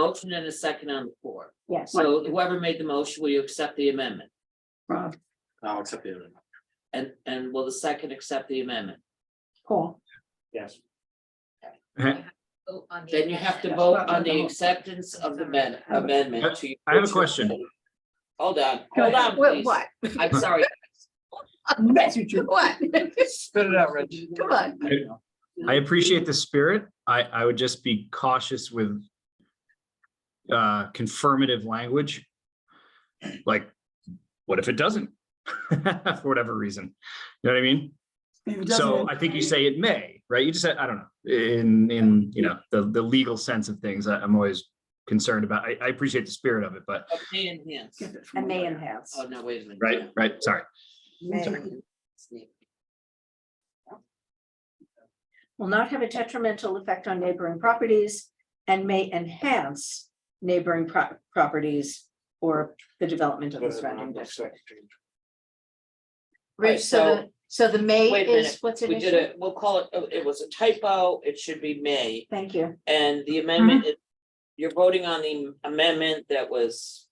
Motion and a second on the floor. Yes, So whoever made the motion, will you accept the amendment? Rob, I'll accept the amendment. And, and will the second accept the amendment? Paul, Yes. vote on the Then you have to amendment. vote on the acceptance of the amend- amendment to. I have a question. Hold on, Go hold ahead. on, What, please. what? I'm sorry. that's what you, What? Spit it out, Rich. Come on. I appreciate the spirit. I, I would just be cautious with uh, confirmative language. Like, what if it doesn't? For whatever reason, you know what I mean? it So doesn't- I think you say it may, right? You just said, I don't know, in, in, you know, the, the legal sense of things, I- I'm always concerned about. I, I appreciate the spirit of it, but, May and Hance. Get it from A man there. house. Oh, no, wait a minute. right, right, sorry. Man. Will not have a detrimental effect on neighboring properties and may enhance neighboring pro- properties or the development of the surrounding district. Rich, so, the- so the May Wait a minute. is, what's We an did issue? it, we'll call it, oh, it was a typo, it should be May, Thank you. and the amendment, is- you're voting on the amendment that was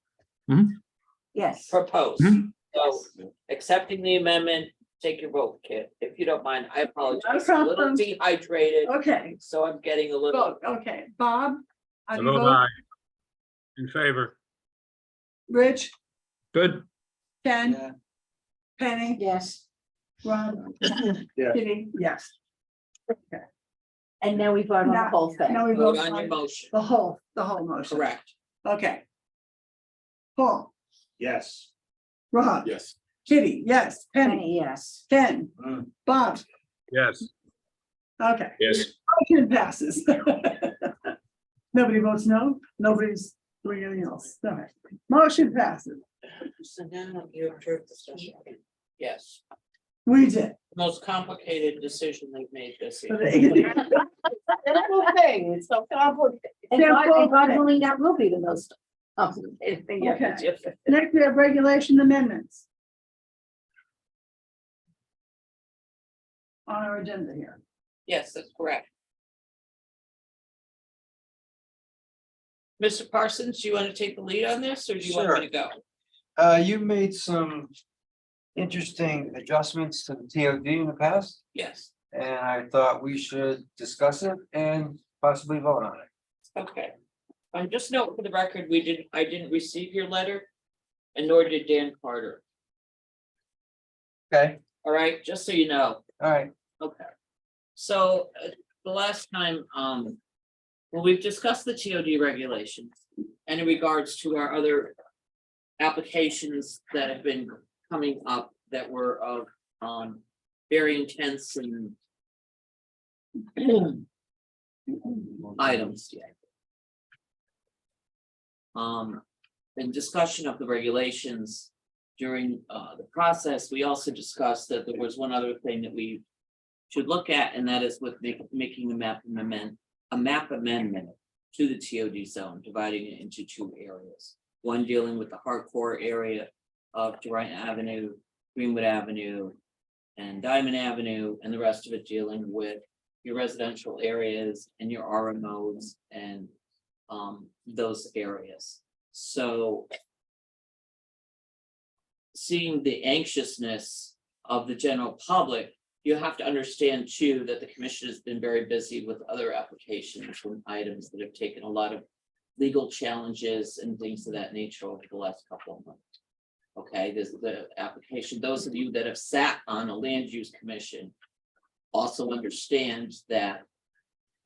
Yes, proposed. Mhm. So accepting the amendment, take your vote, Kit, if you don't mind, I apologize, I'm a little problem. dehydrated, okay, so I'm getting a little. vote, okay. Bob, How do you Vote vote? aye. In favor. Rich, Good. Ken, Yeah. Penny, yes. Rob, Yeah. Kitty. Yes. And now we vote on the Now- whole thing. Now we Vote vote on your on motion, the whole, the whole motion. correct, Okay. Paul, Yes. Rob, Yes. Kitty, yes, Penny, Penny, yes. Ken, Mm. Bob, Yes. okay, Yes. motion passes. Nobody votes no, nobody's doing anything else, all right, motion passes, so now you approve the special. Yes, we did. most complicated decision they've made this year. thing, it's so complicated. And They're God, and both God things. willing, that will be the most complicated thing. you have to do. Next, we have regulation amendments. On our agenda here. Yes, that's correct. Mr. Parsons, do you want to take the lead on this, or do you want me to go? Uh, you made some interesting adjustments to the TOD in the past, Yes, and I thought we should discuss it and possibly vote on it. okay. I'm just note for the record, we didn't, I didn't receive your letter, and nor did Dan Carter, Okay, all right, just so you know. all right. Okay. So uh, the last time, um, well, we've discussed the TOD regulations and in regards to our other applications that have been coming up that were of, um, very intense and items. Um, in discussion of the regulations during, uh, the process, we also discussed that there was one other thing that we should look at, and that is with ma- making a map amendment, a map amendment to the TOD zone, dividing it into two areas. One dealing with the hardcore area of Durant Avenue, Greenwood Avenue, and Diamond Avenue, and the rest of it dealing with your residential areas and your RMOs and um, those areas. So seeing the anxiousness of the general public you have to understand too, that the commission has been very busy with other applications and items that have taken a lot of. Legal challenges and things of that nature over the last couple of months. Okay, this is the application, those of you that have sat on a land use commission. Also understand that.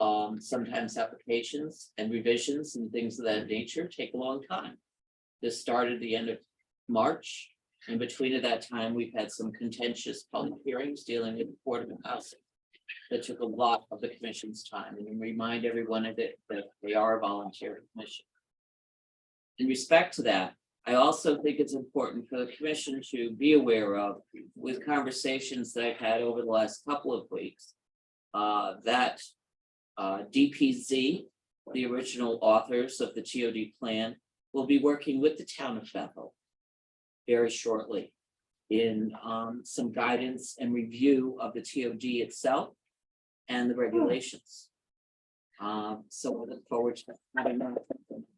Um, sometimes applications and revisions and things of that nature take a long time. This started the end of March, in between at that time, we've had some contentious public hearings dealing with affordable housing. That took a lot of the commission's time and remind everyone of it that they are a voluntary commission. In respect to that, I also think it's important for the commission to be aware of with conversations that I've had over the last couple of weeks. uh, that uh, DPZ, the original authors of the TOD plan, will be working with the town of Bethel very shortly in um some guidance and review of the TOD itself and the regulations. Um, so we look forward to having that.